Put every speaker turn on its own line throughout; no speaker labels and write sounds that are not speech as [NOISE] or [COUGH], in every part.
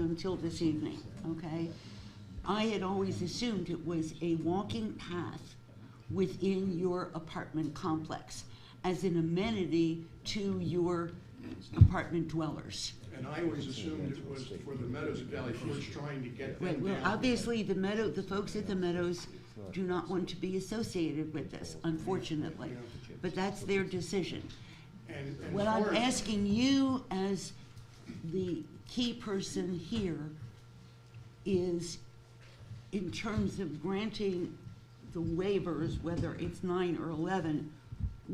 until this evening, okay? I had always assumed it was a walking path within your apartment complex as an amenity to your apartment dwellers.
And I always assumed it was for the Meadows Valley Forge trying to get
Right,
them
well,
down.
obviously, the Meadow, the folks at the Meadows do not want to be associated with this, unfortunately. But that's their decision.
And, and
What I'm
Forge-
asking you as the key person here is in terms of granting the waivers, whether it's nine or eleven,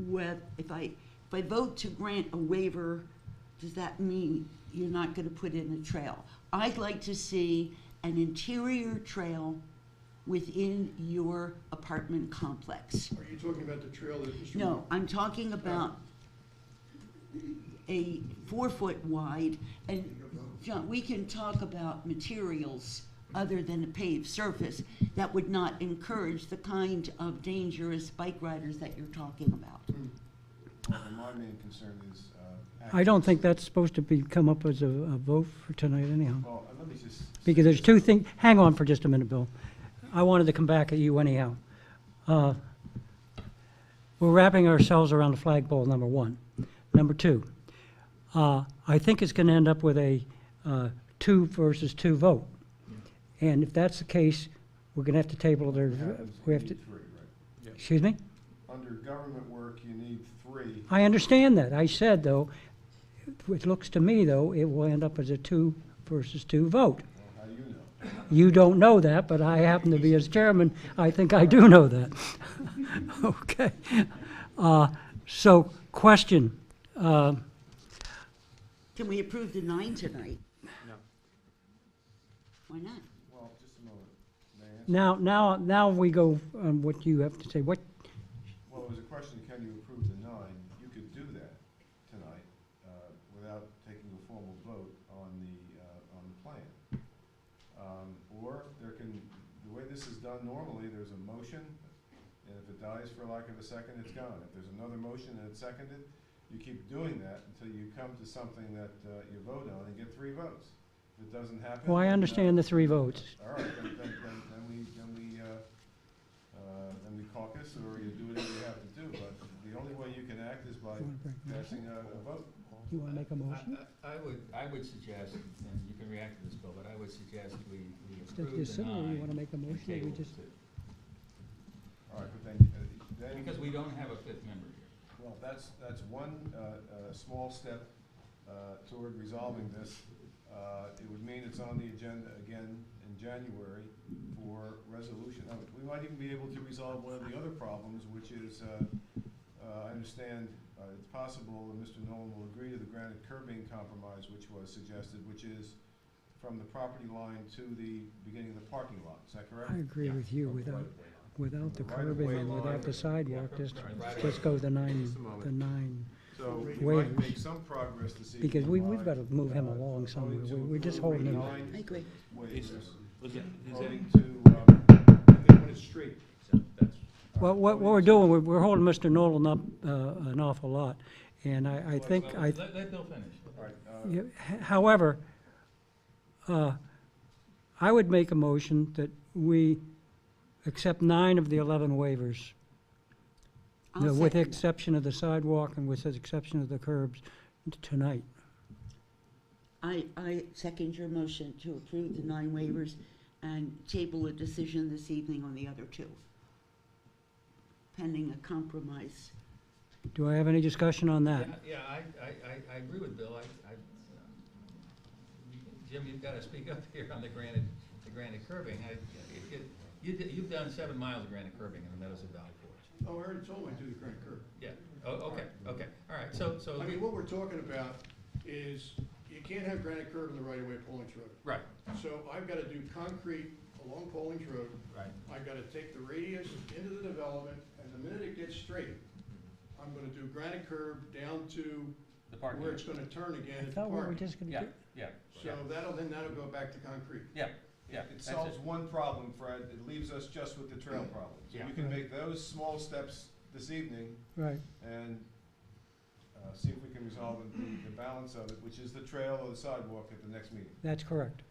what, if I, if I vote to grant a waiver, does that mean you're not gonna put in a trail? I'd like to see an interior trail within your apartment complex.
Are you talking about the trail that Mr.?
No, I'm talking about a four-foot wide, and, John, we can talk about materials other than a paved surface that would not encourage the kind of dangerous bike riders that you're talking about.
Well, then my main concern is. uh,
I don't think that's supposed to be, come up as a, a vote for tonight anyhow.
Well, uh, let me just.
Because there's two things, hang on for just a minute, Bill. I wanted to come back at you anyhow. Uh, We're wrapping ourselves around the flagpole, number one. Number two, uh, I think it's going to end up with a uh, two versus two vote. And if that's the case, we're going to have to table
It
their,
happens,
we
you
have to,
need three, right?
excuse me?
Under government work, you need three.
I understand that. I said, though, it looks to me, though, it will end up as a two versus two
Well,
vote.
How do you know?
You don't know that, but I happen to be as chairman, I think I do know that. [LAUGHS] Okay. Uh, So, question, uh,
Can we approve the nine tonight?
No.
Why not?
Well, just a moment. May I answer?
now, now, now we go on what you have to say. What,
Well, it was a question, can you approve the nine? You could do that tonight uh, without taking a formal vote on the, uh, on the plan. Um, Or there can, the way this is done normally, there's a motion, and if it dies for lack of a second, it's gone. If there's another motion and it's seconded, you keep doing that until you come to something that uh, you vote on and get three votes. If it doesn't happen.
well, I
then, uh,
understand the three votes.
all right, then, then, then, then we, then we, uh, uh, then we caucus, or you do whatever you have to do, but the only way you can act is by
You wanna break-
passing a, a vote.
You want to make a motion?
I I would, I would suggest, and you can react to this, Bill, but I would suggest we we
Just you
approve the
assume, or you want to make
nine
a
and
motion, or we
table
just,
it.
All right, but then, uh, then.
Because we don't have a fifth member here.
Well, that's, that's one, uh, uh, small step, uh, toward resolving this. Uh, it would mean it's on the agenda again in January for resolution. Now, we might even be able to resolve one of the other problems, which is, uh, uh, I understand, uh, it's possible, and Mr. Nolan will agree to the granite curbing compromise which was suggested, which is from the property line to the beginning of the parking lot. Is that correct?
I agree with you, without, without the curbing and without the sidewalk, just, just go the nine, the nine.
So we
Waivers.
might make some progress this evening.
Because we,
by,
we've got to move him
uh,
along somewhere.
voting to
We- We're just
approve
holding him.
nine
I agree.
waivers.
Was it, is that,
Voting to, um, and they put it straight.
so that's,
Well, what, what we're doing, we're, we're holding Mr. Nolan up, uh, an awful lot. And I, I think, I,
Let, let Bill finish.
All right, uh,
yeah, h- however, uh, I would make a motion that we accept nine of the 11 waivers.
I'll
no, With the
second that.
exception of the sidewalk and with the exception of the curbs tonight.
I, I second your motion to approve the nine waivers and table a decision this evening on the other two, pending a compromise.
Do I have any discussion on that?
Yeah, yeah, I, I, I, I agree with Bill, I, I, Jim, you've gotta speak up here on the granite, the granite curving, I, it, it, you, d- you've done seven miles of granite curving in the Meadows of Valley Forge.
Oh, I already told him I do the granite curb.
Yeah, oh, okay, okay, all right, so, so,
I mean,
we-
what we're talking about is you can't have granite curb in the right of way of Paulink's Road.
right,
So I've gotta do concrete along Paulink's Road.
right,
I've gotta take the radius into the development, and the minute it gets straight, I'm gonna do granite curb down to
the parking.
where it's gonna turn
I
again at the
thought we were
park.
just going to
Yeah,
do.
yeah,
So that'll, then that'll go back to concrete.
yeah, yeah,
It
that's
solves
it,
one problem, Fred, it leaves us just with the trail problem. So
Yeah.
you can make those small steps this evening
Right.
and uh, see if we can resolve the, the balance of it, which is the trail or the sidewalk at the next meeting.
That's correct.